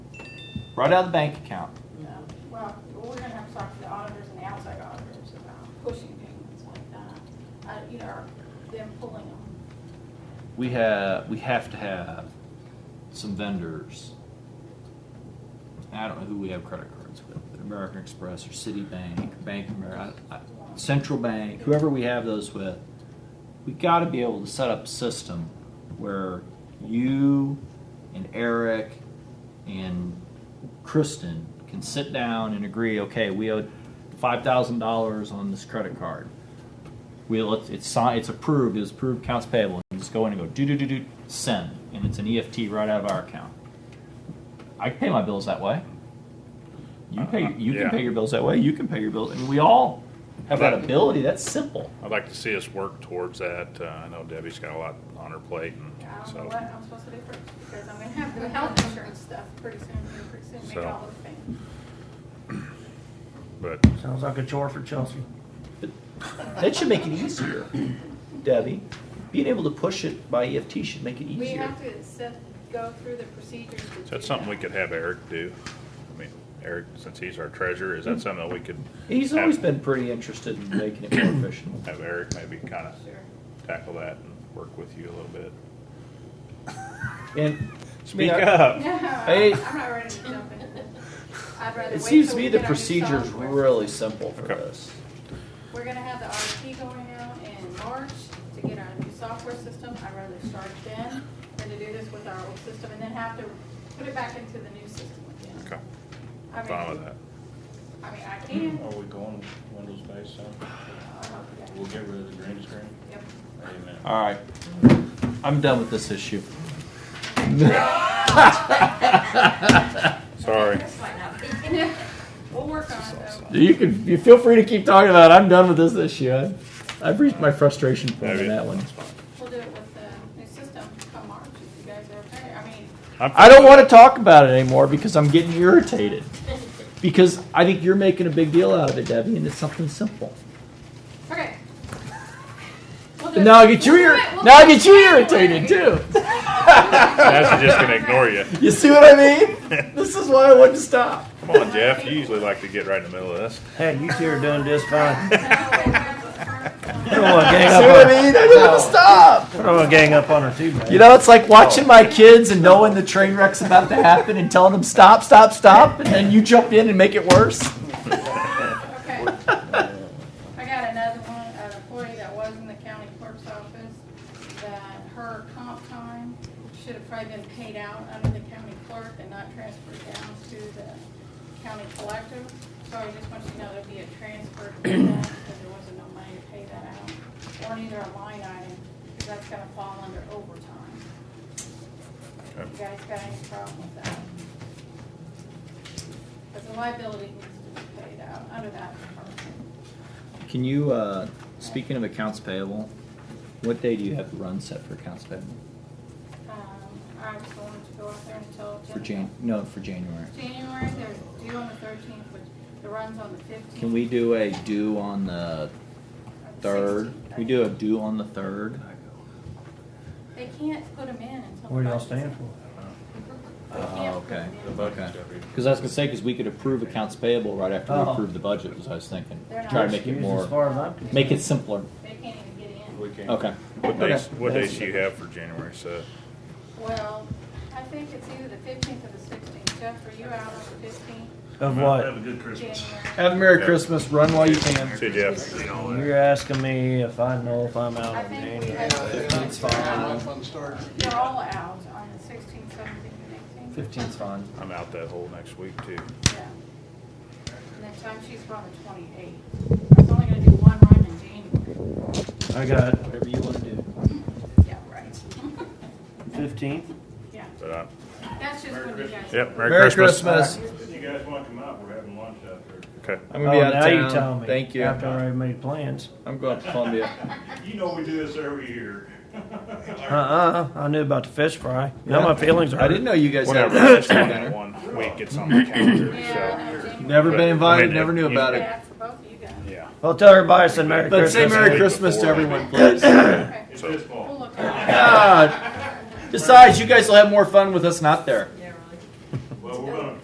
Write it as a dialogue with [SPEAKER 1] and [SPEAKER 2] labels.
[SPEAKER 1] right out of the bank account.
[SPEAKER 2] No, well, we're gonna have to talk to the auditors and the outside auditors about pushing payments like that. Uh, you know, them pulling them.
[SPEAKER 1] We have, we have to have some vendors. I don't know who we have credit cards with, but American Express or Citibank, Bank of America, I- I- Central Bank, whoever we have those with. We gotta be able to set up a system where you and Eric and Kristen can sit down and agree, okay, we owe five thousand dollars on this credit card. We'll, it's, it's signed, it's approved, it's approved accounts payable, and just go in and go do, do, do, do, send, and it's an EFT right out of our account. I can pay my bills that way. You pay, you can
[SPEAKER 3] Yeah.
[SPEAKER 1] pay your bills that way, you can pay your bills, I mean, we all have that
[SPEAKER 3] That-
[SPEAKER 1] ability, that's simple.
[SPEAKER 3] I'd like to see us work towards that. Uh, I know Debbie's got a lot on her plate
[SPEAKER 2] I
[SPEAKER 3] and
[SPEAKER 2] don't know
[SPEAKER 3] so.
[SPEAKER 2] what I'm supposed to do first, because I'm gonna have the health insurance stuff pretty soon, here pretty soon, make
[SPEAKER 3] So-
[SPEAKER 2] all those payments.
[SPEAKER 3] But
[SPEAKER 4] Sounds like a chore for Chelsea.
[SPEAKER 1] That should make it easier, Debbie. Being able to push it by EFT should make it
[SPEAKER 2] We
[SPEAKER 1] easier.
[SPEAKER 2] have to set, go through the procedures.
[SPEAKER 3] is that something we could have Eric do? I mean, Eric, since he's our treasurer, is that something that we could
[SPEAKER 1] Mm. He's always been pretty interested in making it more efficient.
[SPEAKER 3] have Eric maybe kind of
[SPEAKER 2] Sure.
[SPEAKER 3] tackle that and work with you a little bit?
[SPEAKER 1] And.
[SPEAKER 3] Speak
[SPEAKER 1] Yeah.
[SPEAKER 3] up.
[SPEAKER 2] No,
[SPEAKER 1] Hey.
[SPEAKER 2] I'm I'm not ready to jump into this. I'd rather wait.
[SPEAKER 1] It seems to
[SPEAKER 2] till we
[SPEAKER 1] me the
[SPEAKER 2] get our new
[SPEAKER 1] procedure's
[SPEAKER 2] software.
[SPEAKER 1] really simple for
[SPEAKER 3] Okay.
[SPEAKER 1] this.
[SPEAKER 2] We're gonna have the RFP going out in March to get our new software system. I'd rather start then than to do this with our old system and then have to put it back into the new system again.
[SPEAKER 3] Okay,
[SPEAKER 2] I
[SPEAKER 3] fine with
[SPEAKER 2] mean,
[SPEAKER 3] that.
[SPEAKER 2] I mean, I can.
[SPEAKER 5] Are we going with Windows-based sound?
[SPEAKER 2] uh, yeah,
[SPEAKER 5] We'll get rid of the green screen?
[SPEAKER 2] yep.
[SPEAKER 5] Amen.
[SPEAKER 1] All right. I'm done with this issue.
[SPEAKER 3] Sorry.
[SPEAKER 2] We'll work on it though.
[SPEAKER 1] You can, you feel free to keep talking about it. I'm done with this issue. I- I've reached my frustration point on
[SPEAKER 3] Maybe.
[SPEAKER 1] that one.
[SPEAKER 2] We'll do it with the new system come March if you guys are okay. I mean,
[SPEAKER 3] I'm
[SPEAKER 1] I don't want to talk about it anymore because I'm getting irritated. Because I think you're making a big deal out of it, Debbie, and it's something simple.
[SPEAKER 2] okay. We'll do
[SPEAKER 1] But
[SPEAKER 2] it.
[SPEAKER 1] now I get you
[SPEAKER 2] We'll do
[SPEAKER 1] ir-
[SPEAKER 2] it. We'll
[SPEAKER 1] now I
[SPEAKER 2] do it.
[SPEAKER 1] get you irritated too.
[SPEAKER 3] That's just gonna ignore you.
[SPEAKER 1] You see what I mean? This is why I wanted to stop.
[SPEAKER 3] Come on, Jeff, you usually like to get right in the middle of this.
[SPEAKER 4] Hey, you two are doing just fine. I
[SPEAKER 2] We'll
[SPEAKER 4] don't want to
[SPEAKER 1] You
[SPEAKER 4] gang
[SPEAKER 1] see
[SPEAKER 4] up
[SPEAKER 1] what
[SPEAKER 4] on,
[SPEAKER 1] I mean? I just want to stop.
[SPEAKER 4] I don't want to gang up on her too, man.
[SPEAKER 1] You know, it's like watching my kids and knowing the train wreck's about to happen and telling them stop, stop, stop, and then you jump in and make it worse.
[SPEAKER 2] Okay. I got another one, an employee that was in the county clerk's office, that her comp time should have probably been paid out under the county clerk and not transferred down to the county collective. So I just want you to know there'll be a transfer to that, because there wasn't no money to pay that out, or neither a line item, because that's gonna fall under overtime. You
[SPEAKER 3] Okay.
[SPEAKER 2] guys got any problem with that? Because the liability needs to be paid out under that department.
[SPEAKER 1] Can you, uh, speaking of accounts payable, what day do you have the run set for accounts payable?
[SPEAKER 2] Um, I just wanted to go out there and tell.
[SPEAKER 1] For
[SPEAKER 2] Jen-
[SPEAKER 1] Jan, no, for January.
[SPEAKER 2] January, they're due on the thirteenth, but the run's on the fifteenth.
[SPEAKER 1] Can we do a due on the third? We do a due on the third?
[SPEAKER 2] They can't put them in until.
[SPEAKER 4] What do y'all
[SPEAKER 2] Friday.
[SPEAKER 4] stand for?
[SPEAKER 2] They can't
[SPEAKER 1] Oh,
[SPEAKER 2] put
[SPEAKER 1] okay.
[SPEAKER 2] 'em in.
[SPEAKER 5] The budget's gotta be.
[SPEAKER 1] Because I was gonna say, because we could approve accounts payable right after we
[SPEAKER 4] Oh.
[SPEAKER 1] approve the budget, was I was thinking.
[SPEAKER 2] They're
[SPEAKER 1] Try
[SPEAKER 2] not-
[SPEAKER 1] to make it
[SPEAKER 4] Excuse As
[SPEAKER 1] more,
[SPEAKER 4] far as I'm concerned.
[SPEAKER 1] make it simpler.
[SPEAKER 2] They can't even get in.
[SPEAKER 5] We can't.
[SPEAKER 1] Okay.
[SPEAKER 3] What days, what
[SPEAKER 1] Okay.
[SPEAKER 3] days do you have for January set?
[SPEAKER 2] Well, I think it's either the fifteenth or the sixteenth. Jeff, are you out on the fifteenth?
[SPEAKER 4] Of what?
[SPEAKER 5] a good
[SPEAKER 2] January.
[SPEAKER 1] Have a Merry Christmas, run while you can.
[SPEAKER 3] See, Jeff,
[SPEAKER 4] You're asking me if I know if I'm out
[SPEAKER 2] I
[SPEAKER 4] on
[SPEAKER 2] think we
[SPEAKER 4] January.
[SPEAKER 2] have,
[SPEAKER 6] fun start.
[SPEAKER 2] they're all out on the sixteenth, seventeenth, and eighteenth.
[SPEAKER 1] Fifteen's fine.
[SPEAKER 3] I'm out that whole next week too.
[SPEAKER 2] Yeah. Next time she's from the twenty-eighth. I was only gonna do one run in January.
[SPEAKER 4] I got
[SPEAKER 1] Whatever you wanna do.
[SPEAKER 2] Yeah, right.
[SPEAKER 4] fifteenth.
[SPEAKER 2] Yeah,
[SPEAKER 3] But I,
[SPEAKER 2] that's just when you guys.
[SPEAKER 3] yep,
[SPEAKER 1] Merry
[SPEAKER 3] Merry Christmas.
[SPEAKER 1] Christmas.
[SPEAKER 5] If you guys want to come out, we're having lunch out there.
[SPEAKER 3] Okay.
[SPEAKER 1] I'm gonna be out
[SPEAKER 4] Oh, now you
[SPEAKER 1] of
[SPEAKER 4] tell
[SPEAKER 1] town.
[SPEAKER 4] me.
[SPEAKER 1] Thank you.
[SPEAKER 4] After I already made plans.
[SPEAKER 1] I'm going to Columbia.
[SPEAKER 5] You know we do this every year.
[SPEAKER 4] Uh-uh, I knew about the fish fry. Now my feelings are
[SPEAKER 1] I didn't know you guys had
[SPEAKER 3] Whatever,
[SPEAKER 1] a
[SPEAKER 3] I just
[SPEAKER 1] restaurant
[SPEAKER 3] want that
[SPEAKER 1] dinner.
[SPEAKER 3] one week, it's on the calendar,
[SPEAKER 2] Yeah, I
[SPEAKER 3] so,
[SPEAKER 2] know, January.
[SPEAKER 1] Never
[SPEAKER 3] But, I
[SPEAKER 1] been invited,
[SPEAKER 3] mean,
[SPEAKER 1] never knew
[SPEAKER 3] you-
[SPEAKER 1] about it.
[SPEAKER 2] Yeah, for both of you guys.
[SPEAKER 3] yeah.
[SPEAKER 4] Well, tell everybody I said Merry
[SPEAKER 1] But
[SPEAKER 4] Christmas.
[SPEAKER 1] say Merry
[SPEAKER 3] Week
[SPEAKER 1] Christmas to
[SPEAKER 3] before.
[SPEAKER 1] everyone, please.
[SPEAKER 2] Okay,
[SPEAKER 5] It's his fault.
[SPEAKER 2] we'll look at it.
[SPEAKER 1] God. Besides, you guys will have more fun with us not there.
[SPEAKER 5] Well, we're gonna